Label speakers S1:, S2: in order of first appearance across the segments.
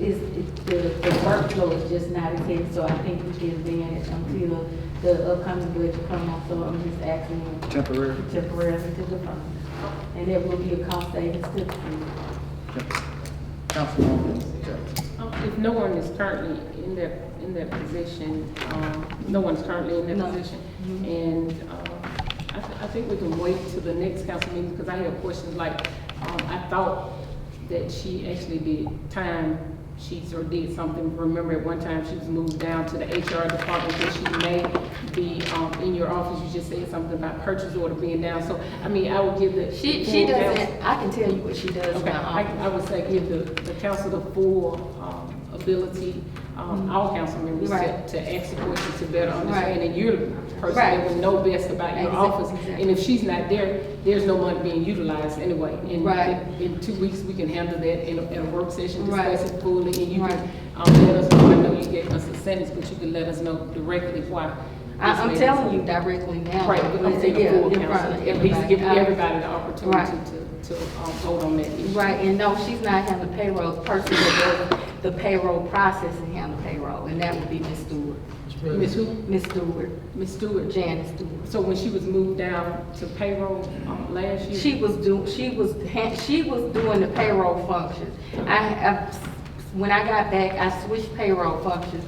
S1: is, it- the, the workflow is just not as heavy, so I think we can advance until the upcoming budget comes on, so I'm just asking
S2: Temporary.
S1: temporarily to the fund. And there will be a cost savings to the fund.
S2: Councilwoman Jackson.
S3: Um, If no one is currently in that, in that position, um, no one's currently in
S1: No.
S3: that position, and um, I thi- I think we can wait till the next council meeting, because I have questions like, um, I thought that she actually did time sheets or did something. Remember at one time, she was moved down to the HR department, that she may be um, in your office. You just said something about purchase order being down, so, I mean, I would give the.
S4: She,
S3: full
S4: she
S3: council-
S4: doesn't, I can tell you what she does
S3: Okay, I,
S4: now.
S3: I would say give the, the council the full, um, ability, um, all council members to,
S4: Mm-hmm. Right.
S3: to ask the questions to better understand,
S4: Right.
S3: and you're the person that
S4: Right.
S3: would know best about your
S4: Exac-
S3: office.
S4: exactly.
S3: And if she's not there, there's no money being utilized anyway. And
S4: Right.
S3: In, in two weeks, we can handle that in a, in a work session,
S4: Right.
S3: discuss it fully, and you
S4: Right.
S3: can, um, let us know, I know you gave us a sentence, but you can let us know directly why.
S4: I,
S3: this
S4: I'm
S3: may-
S4: telling you directly now.
S3: Right, but I'm saying
S4: Yeah,
S3: the full
S4: in front of
S3: council, at least give
S4: everybody. Uh,
S3: everybody the opportunity
S4: Right.
S3: to, to, um, vote on that issue.
S4: Right, and no, she's not having the payroll, the person that does the payroll process and handle payroll, and that would be Miss Stewart.
S3: Ms. who?
S4: Miss Stewart,
S3: Ms. Stewart.
S4: Janice Stewart.
S3: So when she was moved down to payroll um, last year?
S4: She was do, she was, ha- she was doing the payroll functions. I, I, when I got back, I switched payroll functions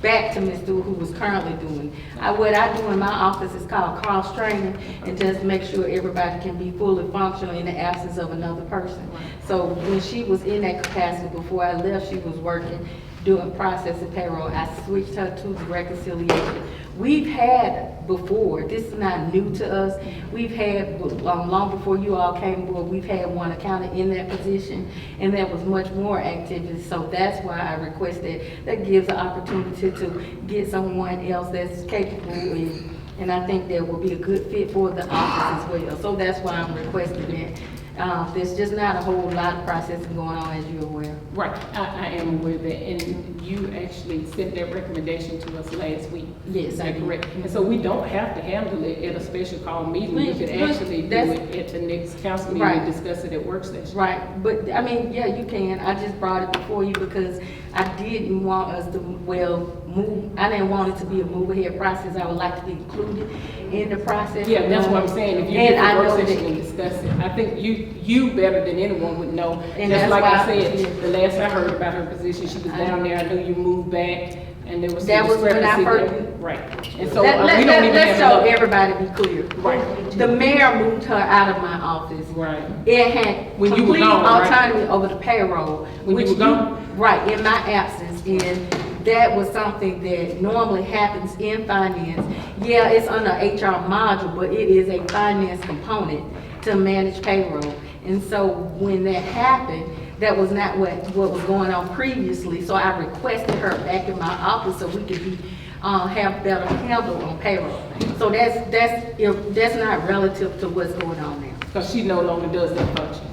S4: back to Ms. Stewart, who was currently doing. I, what I do in my office is called cross training, and just make sure everybody can be fully functional in the absence of another person. So when she was in that capacity before I left, she was working, doing processing payroll. I switched her to reconciliation. We've had before, this is not new to us, we've had, um, long before you all came aboard, we've had one accountant in that position, and there was much more activity, so that's why I requested, that gives an opportunity to get someone else that's capable, and, and I think that will be a good fit for the office as well, so that's why I'm requesting that. Uh, there's just not a whole lot of processing going on, as you're aware.
S3: Right, I, I am aware of that, and you actually sent that recommendation to us last week.
S4: Yes,
S3: Is
S4: I
S3: that
S4: did.
S3: correct? And so we don't have to handle it at a special call meeting, we
S4: Right,
S3: could
S4: right,
S3: actually do
S4: that's-
S3: it at the next council meeting,
S4: Right.
S3: and discuss it at work session.
S4: Right, but, I mean, yeah, you can, I just brought it before you because I didn't want us to, well, move, I didn't want it to be a move ahead process, I would like to be included in the process.
S3: Yeah, that's what I'm saying, if you
S4: And
S3: get
S4: I
S3: the
S4: know
S3: work session and
S4: that,
S3: discuss it, I think you, you better than anyone would know.
S4: And
S3: Just
S4: that's
S3: like I
S4: why-
S3: said, the last I heard about her position, she was down there, I knew you moved back, and there was some
S4: That was when I
S3: discrepancy
S4: heard
S3: there.
S4: you.
S3: Right, and so uh,
S4: let,
S3: we
S4: let,
S3: don't
S4: let-
S3: even have.
S4: let's show
S3: enough-
S4: everybody be clear.
S3: Right.
S4: The mayor moved her out of my office.
S3: Right.
S4: It had
S3: When you were
S4: complete
S3: gone, right?
S4: autonomy over the payroll.
S3: When you
S4: which
S3: were gone?
S4: Right, in my absence, and that was something that normally happens in finance. Yeah, it's under HR module, but it is a finance component to manage payroll. And so when that happened, that was not what, what was going on previously, so I requested her back in my office so we could be, uh, have better handle on payroll. So that's, that's, if- that's not relative to what's going on now.
S3: Because she no longer does that function.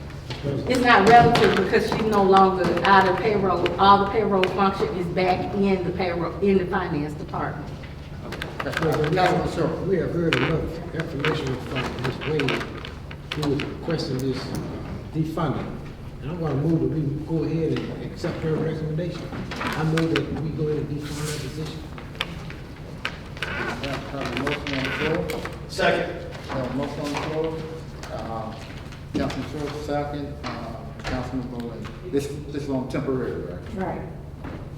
S4: It's not relative because she's no longer out of payroll. All the payroll function is back in the payroll, in the finance department.
S5: President, Madam Chair, We have heard enough information from Ms. Wade, who is requesting this defunding. And I'm gonna move that we go ahead and accept her recommendation. I move that we go ahead and defund that position.
S2: Have a motion on the floor.
S6: Second.
S2: Have a motion on the floor. Uh, Councilman Short, second. Uh, Councilman Bowman. This, this is on temporary, right?
S7: Right.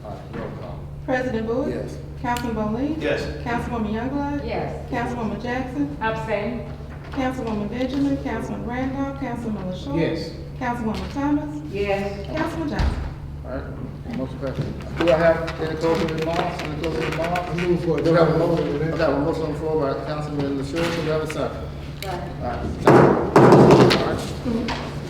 S2: All right, roll call.
S7: President Bowie?
S2: Yes.
S7: Councilman Bowe?
S6: Yes.
S7: Councilwoman Youngblood?
S4: Yes.
S7: Councilwoman Jackson?
S3: Abstain.
S7: Councilwoman Benjamin? Councilman Randolph? Councilman LaShaw?
S5: Yes.
S7: Councilwoman Thomas?
S4: Yes.
S7: Councilman Johnson?
S2: All right, motion passed. Do I have any closing remarks, any closing
S5: I
S2: remarks?
S5: move for a
S2: We have a
S5: double
S2: motion, I
S5: vote.
S2: got a motion on the floor by Councilman LaShaw, do we have a second? All right, second. All right.